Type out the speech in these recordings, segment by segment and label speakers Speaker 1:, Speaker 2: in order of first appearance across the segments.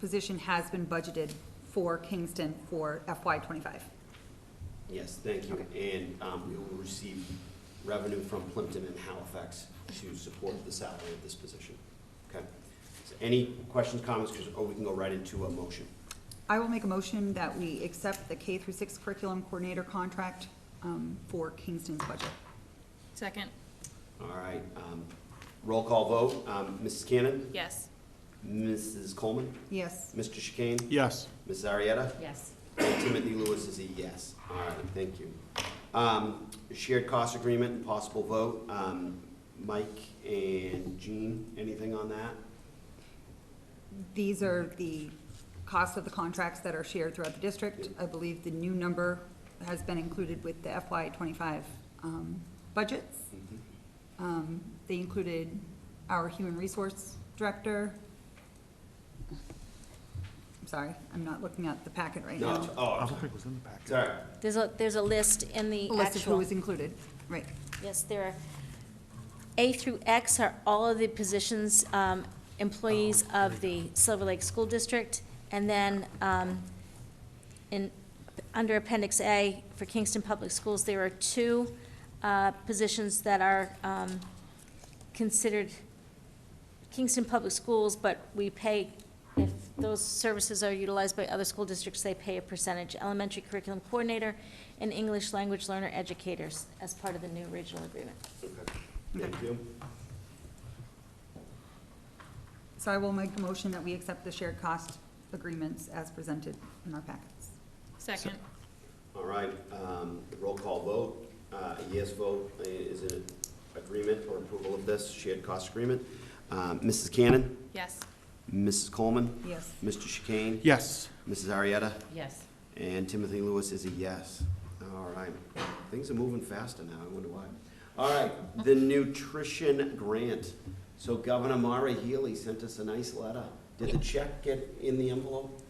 Speaker 1: position has been budgeted for Kingston for FY twenty-five.
Speaker 2: Yes, thank you. And um, we will receive revenue from Plimpton and Halifax to support the salary of this position. Okay? So Any questions, comments, 'Cause- or we can go right into a motion.
Speaker 1: I will make a motion that we accept the K through six curriculum coordinator contract, um, for Kingston's budget.
Speaker 3: Second,
Speaker 2: All right, um, roll call vote. Um, Mrs. Cannon?
Speaker 3: yes.
Speaker 2: Mrs. Coleman?
Speaker 1: Yes,
Speaker 2: Mr. Chicane?
Speaker 4: Yes.
Speaker 2: Ms. Arietta?
Speaker 3: Yes.
Speaker 2: And Timothy Lewis is a yes. All right, thank you. Um, Shared cost agreement and possible vote. Um, Mike and Jean, anything on that?
Speaker 1: these are the costs of the contracts that are shared throughout the district. I believe the new number has been included with the FY twenty-five, um, budgets. Um, they included our human resource director. I'm sorry, I'm not looking at the packet right
Speaker 2: No,
Speaker 1: now.
Speaker 2: it's- oh,
Speaker 4: I
Speaker 2: I'm
Speaker 4: don't
Speaker 2: sorry.
Speaker 4: think it was in the packet.
Speaker 2: Sorry.
Speaker 5: There's a, there's a list in the
Speaker 1: A list of who
Speaker 5: actual,
Speaker 1: was included, right.
Speaker 5: yes, there are, A through X are all of the positions, um, employees of the Silver Lake School District, and then, um, in, under Appendix A for Kingston Public Schools, there are two, uh, positions that are, um, considered Kingston Public Schools, but we pay, if those services are utilized by other school districts, they pay a percentage. Elementary curriculum coordinator and English language learner educators as part of the new regional agreement.
Speaker 2: Okay. Thank you.
Speaker 1: So I will make a motion that we accept the shared cost agreements as presented in our packets.
Speaker 3: Second,
Speaker 2: All right, um, roll call vote, uh, a yes vote, uh, is it agreement or approval of this shared cost agreement? Um, Mrs. Cannon,
Speaker 3: yes.
Speaker 2: Mrs. Coleman,
Speaker 1: Yes.
Speaker 2: Mr. Chicane,
Speaker 4: Yes.
Speaker 2: Mrs. Arietta,
Speaker 3: Yes.
Speaker 2: and Timothy Lewis is a yes. All right, things are moving faster now, I wonder why. All right, the nutrition grant. So Governor Mara Healy sent us a nice letter. Did the check get in the envelope?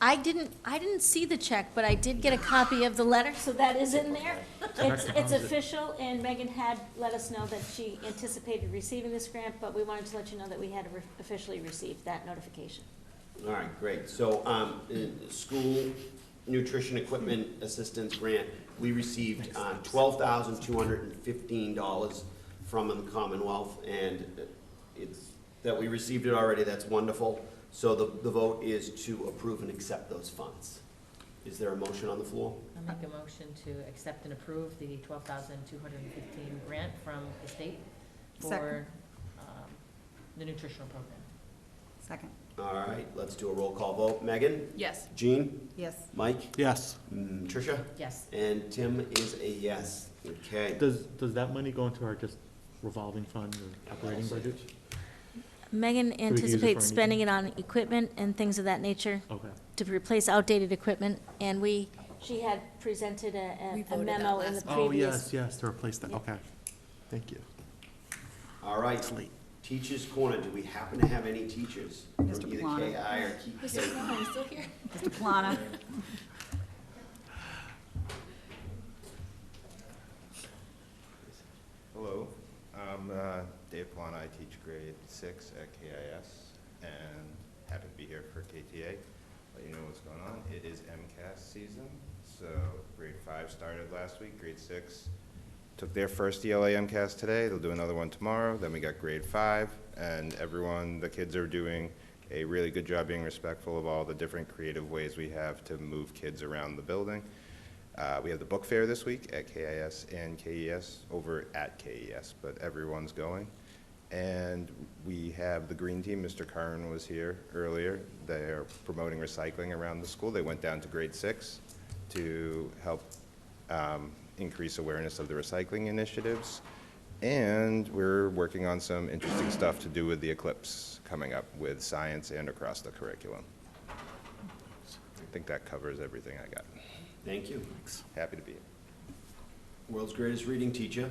Speaker 5: I didn't, I didn't see the check, but I did get a copy of the letter, so that is in there. It's, it's official, and Megan had let us know that she anticipated receiving this grant, but we wanted to let you know that we had re- officially received that notification.
Speaker 2: All right, great. So, um, uh, school nutrition equipment assistance grant, we received, uh, twelve thousand two hundred and fifteen dollars from the Commonwealth, and it's, that we received it already, that's wonderful. So the, the vote is to approve and accept those funds. Is there a motion on the floor?
Speaker 6: I'll make a motion to accept and approve the twelve thousand two hundred and fifteen grant from the state
Speaker 1: Second.
Speaker 6: for, um, the nutritional program.
Speaker 1: Second.
Speaker 2: All right, let's do a roll call vote. Megan?
Speaker 3: Yes.
Speaker 2: Jean?
Speaker 1: Yes.
Speaker 2: Mike?
Speaker 4: Yes.
Speaker 2: mm, Tricia?
Speaker 6: Yes,
Speaker 2: And Tim is a yes. Okay.
Speaker 4: Does, does that money go into our just revolving fund or operating budget?
Speaker 5: Megan
Speaker 4: use it for
Speaker 5: anticipates
Speaker 4: anything?
Speaker 5: spending it on equipment and things of that nature.
Speaker 4: Okay.
Speaker 5: to replace outdated equipment, and we, she had presented a-
Speaker 3: We
Speaker 5: a, a
Speaker 3: voted that
Speaker 5: memo in the
Speaker 3: last
Speaker 4: Oh, yes,
Speaker 5: previous.
Speaker 4: yes, to replace that,
Speaker 5: Yeah.
Speaker 4: okay. Thank you.
Speaker 2: All right, Teachers Corner, do we happen to have any teachers from
Speaker 1: Mr.
Speaker 2: either
Speaker 1: Plana.
Speaker 2: KI or KP?
Speaker 3: Plana, you still here?
Speaker 1: Mr. Plana?
Speaker 7: Hello, I'm uh, Dave Plana. I teach grade six at KIS and happy to be here for KTA. Let you know what's going on. It is MCAS season, so grade five started last week, grade six took their first E ELA MCAS today. They'll do another one tomorrow. Then we got grade five, and everyone, the kids are doing a really good job being respectful of all the different creative ways we have to move kids around the building. Uh, we have the book fair this week at KIS and KES, over at KES, but everyone's going. And we have the green team, Mr. Curran was here earlier. They are promoting recycling around the school. They went down to grade six to help um, increase awareness of the recycling initiatives. And we're working on some interesting stuff to do with the eclipse coming up with science and across the curriculum. I think that covers everything I got.
Speaker 2: Thank you.
Speaker 7: Happy to be here.
Speaker 2: World's greatest reading teacher.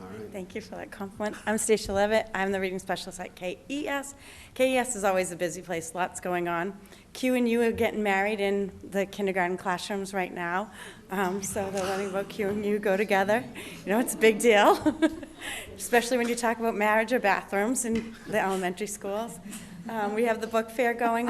Speaker 2: All right.
Speaker 8: Thank you for that compliment. I'm Stacia Levitt. I'm the reading specialist at E KES. KES is always a busy place, lots going on. Q and U are getting married in the kindergarten classrooms right now, Um, so they're learning about Q and U go together. You know, it's a big deal, especially when you talk about marriage or bathrooms in the elementary schools. Um, We have the book fair going